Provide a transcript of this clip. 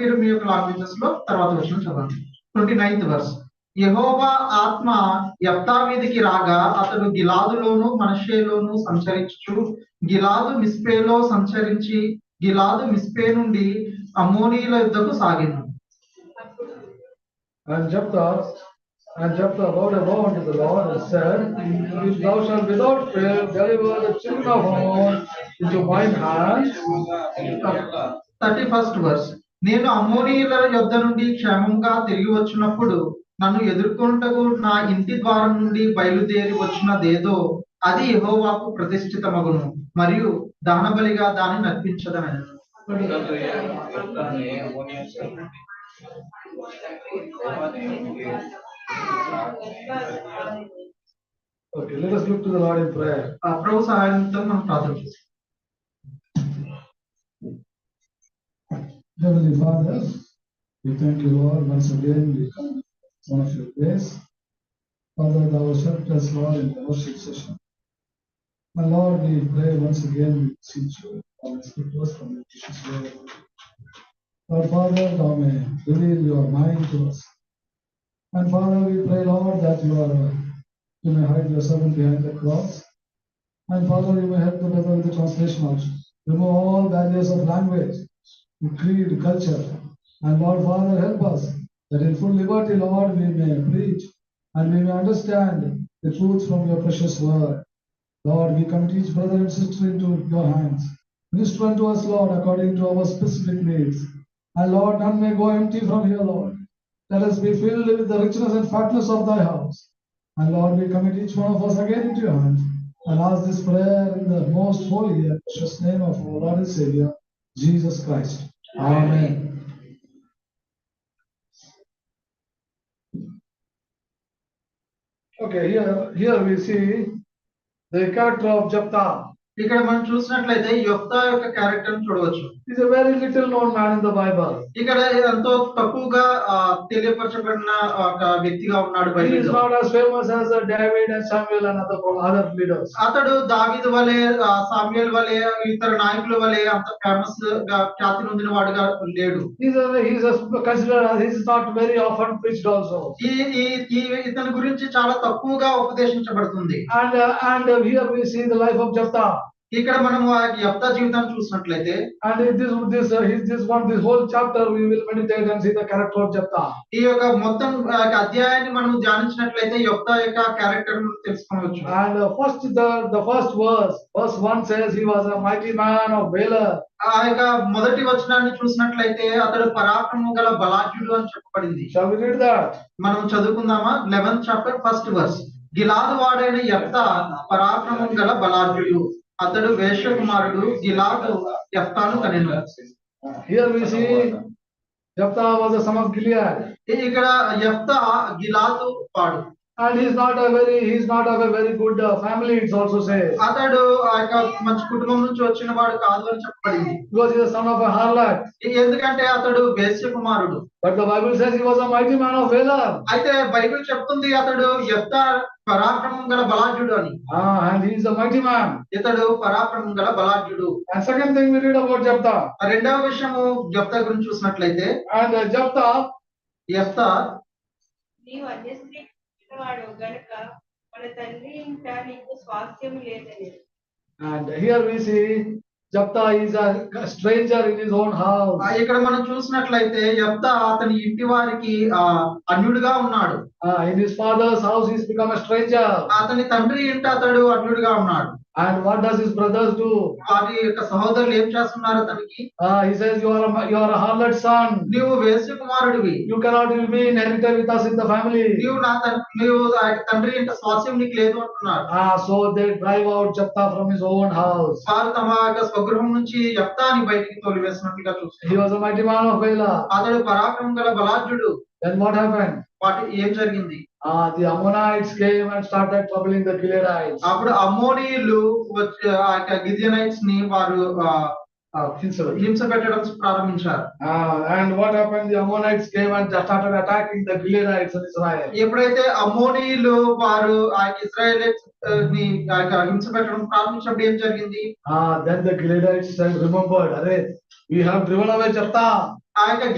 మీరు మీ యొక్క లాంగ్వేజెస్ లో తర్వాత వచ్చిన చదవండి ట్వంటీ నైన్త్ వర్స్ యహోవా ఆత్మ యప్తా మీదకి రాగా అతడు గిలాదులోను మనషేలోను సంచరించు గిలాదు మిస్పేలో సంచరించి గిలాదు మిస్పే నుండి అమోనీల యుద్ధకు సాగిను And Jephthah, and Jephthah vowed a vow unto the Lord and said, If thou shalt without fear deliver the children of Ammon into mine hands, thirty first verse నేను అమోనీయుల యొద్ద నుండి క్షేమంగా తిరిగి వచ్చినప్పుడు నన్ను ఎదుర్కొంటకు నా ఇంటి ద్వారం నుండి బయలుదేరి వచ్చినదేదో అది యెహోవాకు ప్రతిష్ఠితమగును మరియు దానబలిగా దాన్ని నర్పించదనను Okay, let us look to the Lord in prayer. ఆ ప్రభు సహాయంతో మనం ప్రార్థన చేస్తాం Heavenly Father, we thank you Lord once again, we come one of your grace. Father, thou hast helped us Lord in the worship session. My Lord, we pray once again, we beseech you, and speak to us from your precious word. Our Father, thou may reveal your mind to us. And Father, we pray Lord that you are, you may hide your servant behind the cross. And Father, you may help the brother with the translation also. Remove all barriers of language, creed, culture. And Lord Father, help us that in full liberty, Lord, we may preach and we may understand the truth from your precious word. Lord, we commit each brother and sister into your hands. Minister unto us, Lord, according to our specific needs. And Lord, none may go empty from here, Lord. Let us be filled with the richness and fatness of thy house. And Lord, we commit each one of us again into your hands and ask this prayer in the most holy and precious name of our Lord and Savior, Jesus Christ. Amen. Okay, here, here we see the character of Jephthah. ఇక్కడ మనం చూసినట్లయితే యొక్త యొక్క character చూడవచ్చు He's a very little known man in the Bible. ఇక్కడ ఎంతో తక్కువగా ఆ, తెలియపరచబడిన ఆ, ఒక వ్యక్తిగా ఉన్నాడు He is బైబిల్లో not as famous as uh, David and Samuel and other, other leaders. అతడు దావీదు వలె ఆ, సామ్యుయేల్ వలె ఇతర నాయకుల వలె అంత ఫేమస్ గా ఖ్యాతి నొందిన వాడుగా లేడు He's a, he's a considered, as- he's not very often preached also. ఈ ఈ ఈ- ఇతని గురించి చాలా తక్కువగా ఉపదేశించబడుతుంది And, uh, and uh, here we see the life of Jephthah. ఇక్కడ మనము ఆ యొక్క జీవితాన్ని చూసినట్లయితే And in this, this, uh, his- this one, this whole chapter, we will meditate and see the character of Jephthah. ఈ యొక్క మొత్తం ఆ యొక్క అధ్యాయాన్ని మనం ధ్యానించినట్లయితే యొక్క యొక్క క్యారెక్టర్ తెలుసుకోవచ్చు And uh, first, the, the first verse, verse one says he was a mighty man of valor. ఆ యొక్క మొదటి వచనాన్ని చూసినట్లయితే అతడు పరాక్రమం గల బలాఢ్యుడు అని చెప్పబడింది Shall we read that? మనం చదువుకుందామా లెవెన్త్ చాప్టర్ ఫస్ట్ వర్స్ గిలాదు వాడైన యెఫ్తా పరాక్రమం గల బలాఢ్యుడు అతడు వేషకుమారుడు గిలాదు యెఫ్తాను కనెను Here we see Jephthah was a son of Gilead. ఇ- ఇక్కడ యెఫ్తా గిలాదు వాడు And he's not a very, he's not of a very good uh, family, it also says. అతడు ఆ యొక్క మంచి కుటుంబం నుంచి వచ్చిన వాడు కాదు అని చెప్పబడింది Because he's a son of a harlot. ఇ- ఎందుకంటే అతడు వేశ్య కుమారుడు But the Bible says he was a mighty man of valor. అయితే బైబిల్ చెప్తుంది అతడు యెఫ్తా పరాక్రమం గల బలాఢ్యుడు అని Ah, and he is a mighty man. ఇతడు పరాక్రమం గల బలాఢ్యుడు And second thing we read about Jephthah. రెండవ విషయము యెఫ్తా గురించి చూసినట్లయితే And uh, Jephthah, యెఫ్తా నీవు అన్యస్త్రీ పుట్టినవాడు గనుక మన తండ్రి ఇంట నీకు స్వాస్థ్యం లేదని And here we see Japta is a stranger in his own house. ఆ, ఇక్కడ మనం చూసినట్లయితే యెఫ్తా అతని ఇంటి వారికి ఆ, అన్యుడిగా ఉన్నాడు Uh, in his father's house, he's become a stranger. అతని తండ్రి ఇంట అతడు అన్యుడిగా ఉన్నాడు And what does his brothers do? వారి యొక్క సహోదరులు ఏం చేస్తున్నారు అతనికి Uh, he says, you are a, you are a harlot son. నీవు వేసు కుమారుడివి You cannot will be inherited with us in the family. నీవు నా తన్- నీవు ఆ యొక్క తండ్రి ఇంట స్వాస్యం నీకు లేదు అంటున్నారు Ah, so they drive out Japta from his own house. వారు తమ యొక్క స్వగృహం నుంచి యప్తాని బయటికి తోలివేసినట్లుగా చూస్తారు He was a mighty man of Bela. అతడు పరాక్రమం గల బలాఢ్యుడు Then what happened? వాటి ఏం జరిగింది Ah, the Ammonites came and started troubling the Gileadites. అప్పుడు అమోనీయులు వచ్చి ఆ యొక్క గిజనైట్స్ ని వారు ఆ, ఆ, Uh, హింస పెట్టడం ప్రారంభించారు Ah, and what happened? The Ammonites came and started attacking the Gileadites in Israel. ఎప్పుడైతే అమోనీయులు వారు ఆ ఇస్రాయలైట్స్ ని ఆ యొక్క హింస పెట్టడం ప్రారంభించినప్పుడు ఏం జరిగింది Ah, then the Gileadites said, remembered, "Arey, we have driven away Jephthah. ఆ యొక్క